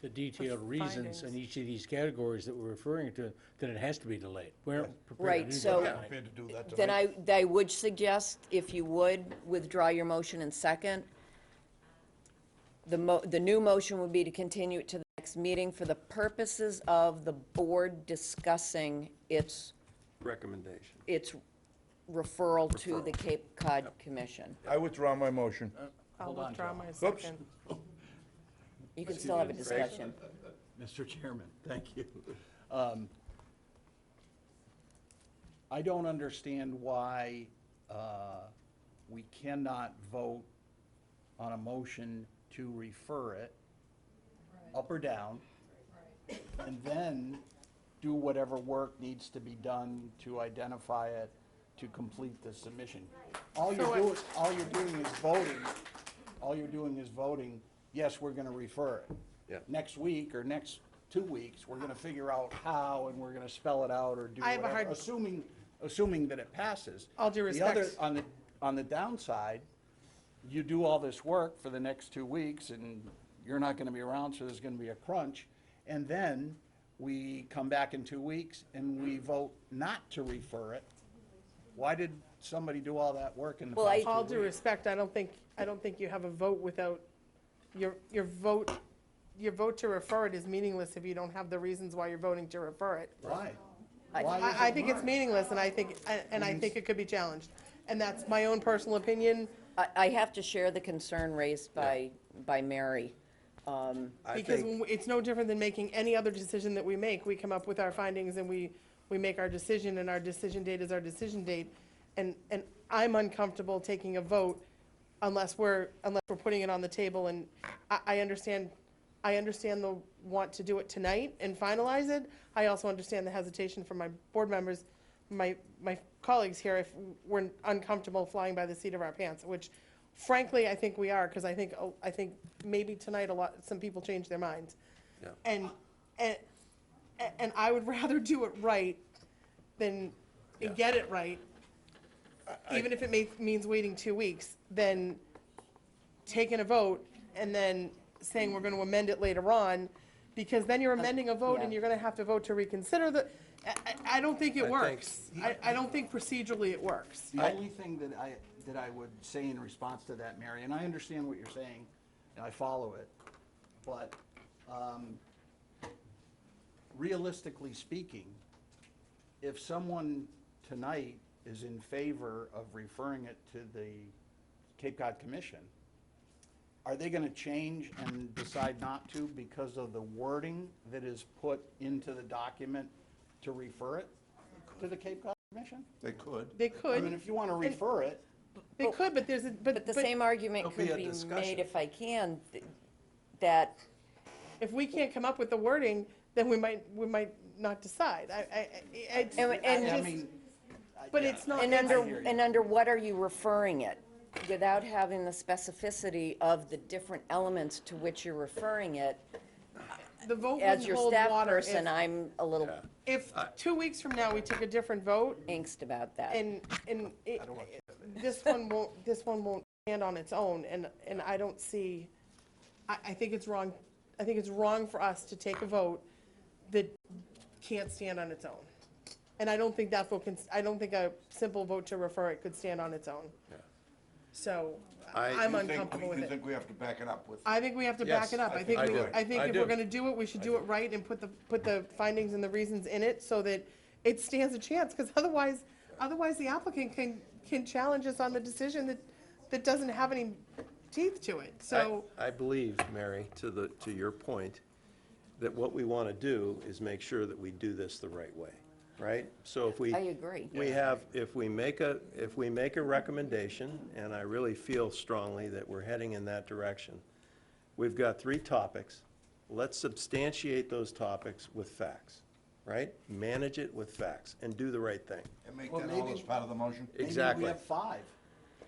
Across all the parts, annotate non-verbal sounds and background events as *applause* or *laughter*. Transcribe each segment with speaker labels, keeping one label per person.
Speaker 1: the detailed reasons in
Speaker 2: findings.
Speaker 1: each of these categories that we're referring to, then it has to be delayed. We aren't
Speaker 3: Right,
Speaker 1: prepared to do
Speaker 3: so-
Speaker 1: that
Speaker 3: Yeah.
Speaker 1: tonight.
Speaker 4: prepared to do that
Speaker 3: Then
Speaker 4: tonight.
Speaker 3: I, I would suggest, if you would, withdraw your motion and second. The mo, the new motion would be to continue it to the next meeting for the purposes of the board discussing its,
Speaker 5: Recommendation.
Speaker 3: its referral to the Cape Cod Commission.
Speaker 4: I withdraw my motion.
Speaker 2: I'll
Speaker 6: Hold on,
Speaker 2: withdraw
Speaker 6: Joe.
Speaker 2: my second.
Speaker 3: You can still have a discussion.
Speaker 6: Mr. Chairman, *laughs* thank you. Um, I don't understand why uh, we cannot vote on a motion to refer it, up or down, and then do whatever work needs to be done to identify it, to complete the submission. All you're doing, all you're doing is voting, all you're doing is voting, yes, we're gonna refer it.
Speaker 5: Yeah.
Speaker 6: Next week or next two weeks, we're gonna figure out how and we're gonna spell it out or do
Speaker 2: I have a
Speaker 6: whatever,
Speaker 2: hard-
Speaker 6: assuming, assuming that it passes.
Speaker 2: All due
Speaker 6: The other-
Speaker 2: respect.
Speaker 6: On the, on the downside, you do all this work for the next two weeks and you're not gonna be around, so there's gonna be a crunch. And then we come back in two weeks and we vote not to refer it. Why did somebody do all that work in the
Speaker 3: Well, I-
Speaker 6: past
Speaker 2: All
Speaker 6: two
Speaker 2: due
Speaker 6: weeks?
Speaker 2: respect, I don't think, I don't think you have a vote without, your, your vote, your vote to refer it is meaningless if you don't have the reasons why you're voting to refer it.
Speaker 6: Why?
Speaker 3: I-
Speaker 6: Why is
Speaker 2: I, I
Speaker 6: it
Speaker 2: think it's
Speaker 6: not?
Speaker 2: meaningless, and I think, and I think it could be challenged. And that's my own personal opinion,
Speaker 3: I, I have to share the concern raised by, by Mary. Um,
Speaker 5: I
Speaker 2: because
Speaker 5: think,
Speaker 2: when we- it's no different than making any other decision that we make. We come up with our findings and we, we make our decision, and our decision date is our decision date. And, and I'm uncomfortable taking a vote unless we're, unless we're putting it on the table. And I, I understand, I understand the want to do it tonight and finalize it. I also understand the hesitation from my board members, my, my colleagues here, if we're uncomfortable flying by the seat of our pants, which frankly, I think we are, because I think, oh, I think maybe tonight a lot, some people change their minds.
Speaker 5: Yeah.
Speaker 2: And, and, and I would *laughs* rather do it right than, and get it right, even if it may, means waiting two weeks, than taking a vote and then saying we're gonna amend it later on, because then you're amending a vote and
Speaker 3: yeah.
Speaker 2: you're gonna have to vote to reconsider the, I, I, I don't think it
Speaker 5: I think-
Speaker 2: works. I, I don't think procedurally it works.
Speaker 6: The only thing that I, that I would say in response to that, Mary, and I understand what you're saying, and I follow it, but um, realistically speaking, if someone tonight is in favor of referring it to the Cape Cod Commission, are they going to change and decide not to because of the wording that is put into the document to refer it to the Cape Cod Commission?
Speaker 4: They could.
Speaker 2: They
Speaker 6: I
Speaker 2: could,
Speaker 6: mean, if you want to refer it,
Speaker 2: they could, but there's a, but,
Speaker 3: But the
Speaker 2: but
Speaker 3: same argument could
Speaker 5: There'll be a
Speaker 3: be made,
Speaker 5: discussion.
Speaker 3: if I can, th- that
Speaker 2: if we can't come up with the wording, then we might, we might not decide. I, I, I- it's,
Speaker 3: And- and-
Speaker 6: I
Speaker 2: I just,
Speaker 6: mean. I-
Speaker 2: but
Speaker 6: yeah.
Speaker 2: it's not.
Speaker 3: And
Speaker 2: it's-
Speaker 3: under,
Speaker 6: hear you.
Speaker 3: and under what are you referring it? Without having the specificity of the different elements to which you're referring it,
Speaker 2: The vote
Speaker 3: as
Speaker 2: wouldn't
Speaker 3: your
Speaker 2: hold
Speaker 3: staff
Speaker 2: water
Speaker 3: person,
Speaker 2: if,
Speaker 3: I'm a little
Speaker 2: if two weeks from now we took a different vote
Speaker 3: angst about that.
Speaker 2: and, and it, this one won't, this one won't stand on its own and, and I don't see, I, I think it's wrong, I think it's wrong for us to take a vote that can't stand on its own. And I don't think that vote can, I don't think a simple vote to refer it could stand on its own. So
Speaker 5: I-
Speaker 2: I'm
Speaker 4: You think-
Speaker 2: uncomfortable with
Speaker 4: You
Speaker 2: it.
Speaker 4: think we have to back it up with?
Speaker 2: I think we have to back
Speaker 5: Yes,
Speaker 2: it up.
Speaker 4: I
Speaker 2: I think,
Speaker 5: think-
Speaker 2: we-
Speaker 5: I do.
Speaker 2: I think
Speaker 5: I
Speaker 2: if we're
Speaker 5: do.
Speaker 2: gonna do it, we should do it right and put the, put the findings and the reasons in it so that it stands a chance, because otherwise, otherwise the applicant can, can challenge us on the decision that, that doesn't have any teeth to it,
Speaker 5: I,
Speaker 2: so.
Speaker 5: I believe, Mary, to the, to your point, that what we want to do is make sure that we do this the right way, right? So if we.
Speaker 3: I agree.
Speaker 5: We have, if we make a, if we make a recommendation, and I really feel strongly that we're heading in that direction, we've got three topics. Let's substantiate those topics with facts, right? Manage it with facts and do the right thing.
Speaker 4: And make
Speaker 6: Well,
Speaker 4: that all
Speaker 6: maybe-
Speaker 4: as part of the motion?
Speaker 5: Exactly.
Speaker 6: Maybe we have five.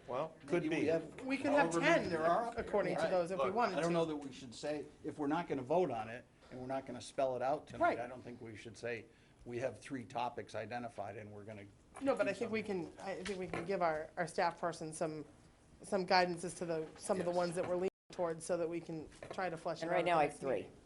Speaker 5: Well, could
Speaker 6: Maybe
Speaker 5: be.
Speaker 6: we have
Speaker 2: We could have
Speaker 6: however many
Speaker 2: 10
Speaker 6: there are up there.
Speaker 2: according to
Speaker 6: Right.
Speaker 2: those if we
Speaker 6: Look,
Speaker 2: wanted
Speaker 6: I don't
Speaker 2: to.
Speaker 6: know that we should say, if we're not gonna vote on it, and we're not gonna spell it out tonight,
Speaker 2: Right.
Speaker 6: I don't think we should say, we have three topics identified and we're gonna.
Speaker 2: No, but I think we can, I think we can give our, our staff person some, some guidance as to the, some of the ones that we're leaning towards so that we can try to flesh it out.
Speaker 3: And right
Speaker 2: at the
Speaker 3: now I have
Speaker 2: next
Speaker 3: three.
Speaker 2: meeting.